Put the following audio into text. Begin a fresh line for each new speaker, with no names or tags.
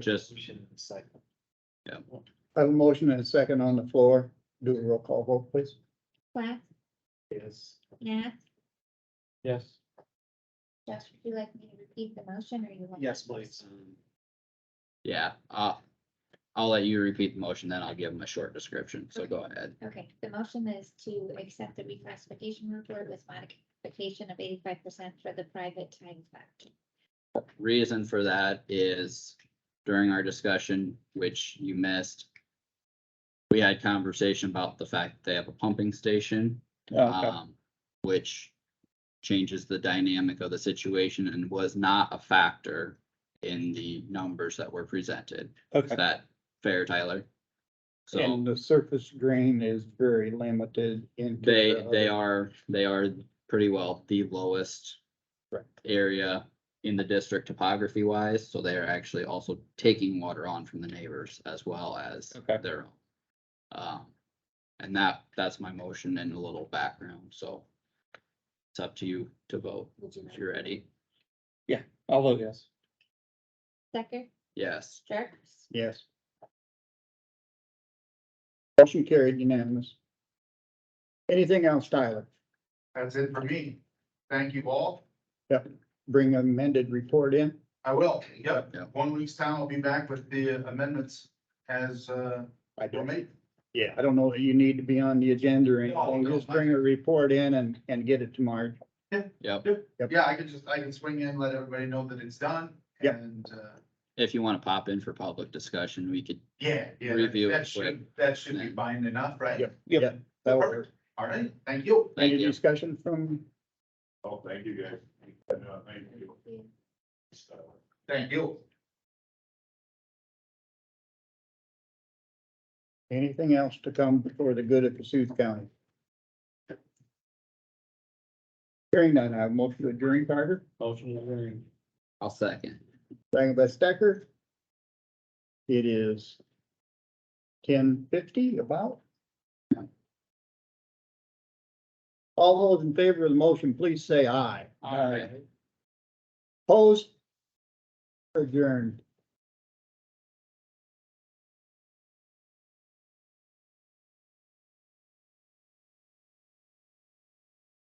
Just-
I have a motion and a second on the floor. Do a roll call vote, please.
Plath,
Yes.
Nat,
Yes.
Josh, would you like me to repeat the motion or you? want-
Yeah, uh, I'll let you repeat the motion, then I'll give them a short description, so go ahead.
Okay, the motion is to accept the reclassification report with modification of eighty-five percent for the private time factor.
Reason for that is during our discussion, which you missed. We had conversation about the fact that they have a pumping station,
Okay,
um, which changes the dynamic of the situation and was not a factor in the numbers that were presented. Is
okay.
that fair, Tyler? So.
And the surface drain is very limited into.
They,
the
they
other-
are, they are pretty well the lowest
Correct.
area in the district topography wise, so they are actually also taking water on from the neighbors as well as
Okay.
their own. Um, and that, that's my motion and a little background, so it's up to you to vote
Would you?
if you're ready.
I'll vote yes.
Second,
Yes,
Jerks,
Yes. Motion carried unanimous. Anything else, Tyler?
That's it for me. Thank you all.
Bring amended report in.
I will, yep.
Yeah.
One week's time, I'll be back with the amendments as, uh,
I
were
don't,
made.
yeah, I don't know that you need to be on the agenda or
No,
anything.
no,
Just bring a report in and, and get it to Marge.
yep.
Yep.
Yeah, I can just, I can swing in, let everybody know that it's done.
Yep.
And, uh,
If you want to pop in for public discussion, we could,
yeah, yeah, that-
Review it
that should, that should be binding enough, right?
Yep. That will work.
All right, thank you.
thank
Any
you.
discussion from,
Oh, thank you, guys. Thank you. Thank you.
anything else to come for the good of Cassuth County? Hearing none, I have motion to adjourn, Carter,
Motion to adjourn.
I'll second.
second by Stecker. It is ten fifty about. All those in favor of the motion, please say aye.
Aye.
Opposed? Adjourned.